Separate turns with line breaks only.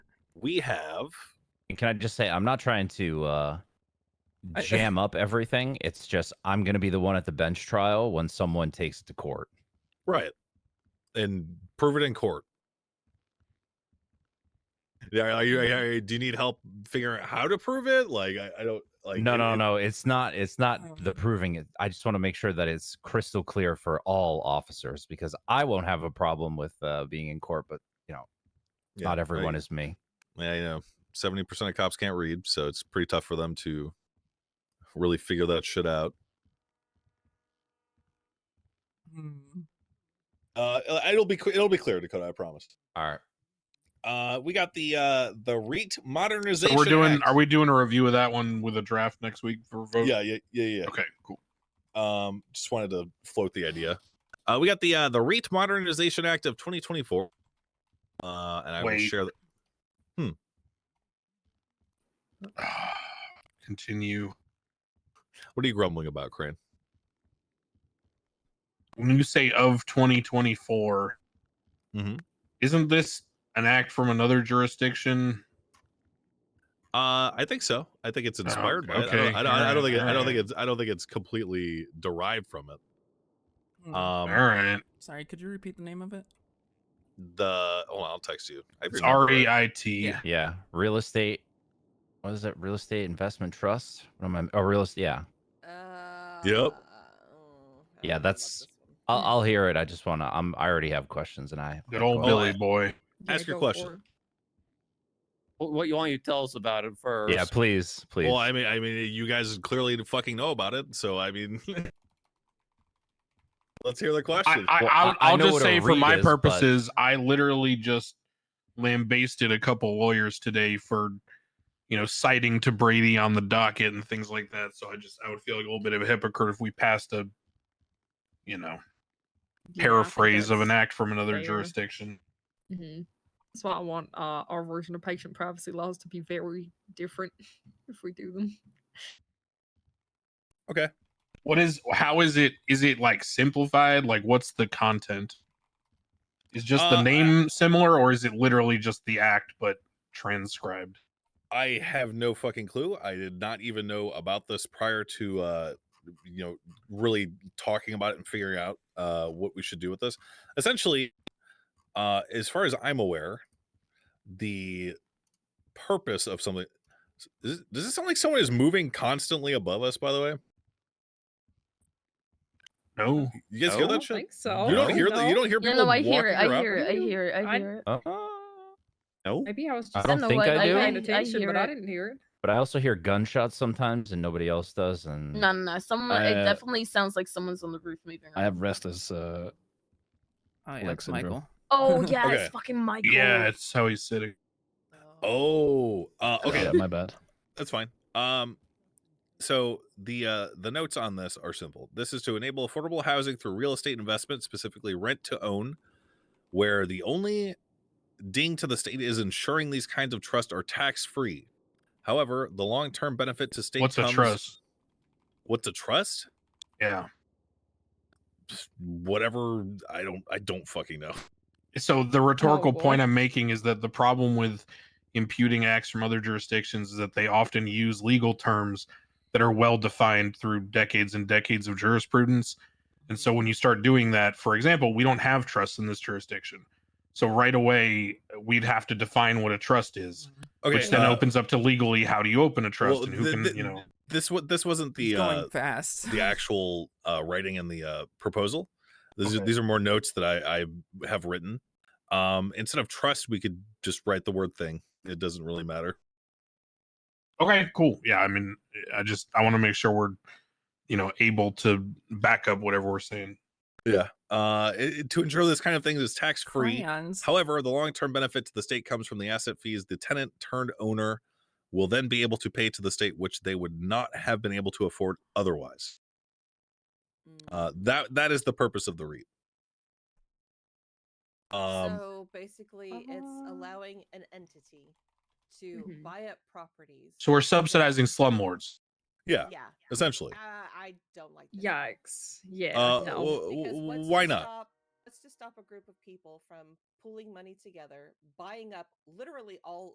we have
And can I just say, I'm not trying to uh,
I-
jam up everything. It's just I'm going to be the one at the bench trial when someone takes it to court.
right and prove it in court. Yeah, are you, are you- do you need help figuring out how to prove it? Like, I, I don't like.
no,
it-
no,
it-
no. It's not. It's
Oh.
not the proving it. I just want to make sure that it's crystal clear for all officers because I won't have a problem with uh, being in court, but
yeah,
not
I-
everyone is me.
Yeah, you know, seventy percent of cops can't read, so it's pretty tough for them to really figure that shit out.
Hmm.
Uh, it'll- it'll be cl- it'll be clear, Dakota. I promise.
All right.
Uh, we got the uh the REIT
So
modernization.
we're doing.
Act.
Are we doing a review of that one with a draft next week for vote?
Yeah, yeah, yeah, yeah.
Okay. Cool.
Um, just wanted to float the idea. Uh, we got the uh the REIT modernization act of 2024. Uh, and I will
Wait.
share. The-
Continue.
what are you grumbling about, Crane?
When you say of 2024,
Mhm.
isn't this an act from another jurisdiction?
Uh, I think so. I think it's inspired by.
okay,
It. I don't, I don't, I don't
alright,
think. It, I don't think
alright.
it's. I don't think it's completely derived from it. Um,
Hmm.
All right.
Sorry, could you repeat the name of it?
the oh i'll text you I
It's
remember
R
it.
E I T.
Yeah.
Yeah. Real estate. What is it? Real estate investment trust? What am I? Oh, real estate. Yeah.
Uh, oh, I don't know
Yeah,
about
that's-
this one.
I'll,
Mm.
I'll hear it. I just want to. I'm. I already have questions, and I.
Good
I
old
go-
Billy
I-
boy.
Ask your
go
question.
for it.
What, what you want you to tell us about it first?
Yeah, please, please.
well i mean i mean you guys clearly fucking know about it so i mean let's hear the
I,
question
I,
Well, I-
I'll,
I
I'll
know
just
what a
say for
read
my
is, but-
purposes, I literally just lambasted a couple lawyers today for, you know, citing to Brady on the docket and things like that. So I just I would feel like a little bit of a hypocrite if we passed a, you know,
Yeah, I think
paraphrase of an
that's-
act from another
fair.
jurisdiction.
Mhm. That's why I want uh, our version of patient privacy laws to be very different if we do them.
What is how is it? Is it like simplified? Like what's the content? Is just
Uh,
the
I-
name similar, or is it literally just the act but transcribed?
I have no fucking clue i did not even know about this prior to uh you know really talking about it and figuring out uh what we should do with this essentially uh as far as i'm aware the purpose of something does it- does it sound like someone is moving constantly above us by the way
No.
you guys hear
I
that
don't
shit
think so.
You don't hear that. You
No.
don't hear
No,
people.
no, I hear it.
walking
I
around?
hear it. I
You-
hear it. I
I-
hear it.
Uh,
No.
Maybe I was
I
just
don't
in the
think
way,
I do.
paying
I- I
attention, but I
hear it.
didn't hear it.
but I also hear gunshots sometimes, and nobody else does. And
No, no, no. Someone.
I,
it
uh,
definitely sounds like someone's on the roof moving.
I
around.
have restless. Uh,
Oh yeah,
Leg
it's
syndrome.
Michael.
Oh yeah,
Okay.
it's fucking Michael.
Yeah, it's how he's sitting.
Oh, uh, okay,
yeah, my bad.
that's fine. Um, so the uh, the notes on this are simple. This is to enable affordable housing through real estate investment, specifically rent to own, where the only ding to the state is ensuring these kinds of trusts are tax free. However, the long term benefit to state
What's a
comes-
trust?
What's a trust?
Yeah.
Just Whatever. I don't. I don't fucking know.
So the rhetorical
boy.
point I'm making is that the problem with imputing acts from other jurisdictions is that they often use legal terms that are well defined through decades and decades of jurisprudence. And so when you start doing that, for example, we don't have trusts in this jurisdiction. So right away, we'd have to define what a trust is,
Okay.
which then
uh,
opens up to legally how do you open a trust
well,
and who
the-
can,
the-
you know.
This wa- this wasn't
He's
the
going
uh,
fast.
the actual uh, writing and the uh, proposal. These, are,
Okay.
these are more notes that I, I have written. Um, instead of trust, we could just write the word thing. It doesn't really matter.
Okay, cool. Yeah, I mean, I just I want to make sure we're, you know, able to back up whatever we're saying.
Yeah. Uh, it- it- to ensure this kind of thing is tax free.
Crayons.
However, the long term benefit to the state comes from the asset fees the tenant turned owner will then be able to pay to the state, which they would not have been able to afford otherwise. Uh, that that is the purpose of the REIT. Um,
so basically, it's
Uh-huh.
allowing an entity to
Mhm.
buy up properties.
So we're subsidizing slumlords.
yeah,
Yeah,
essentially.
uh, I don't like that.
Yikes. Yeah.
Uh,
no.
well-
Because
w-
what's
why
to
not?
Stop, what's to stop a group of people from pooling money together, buying up literally all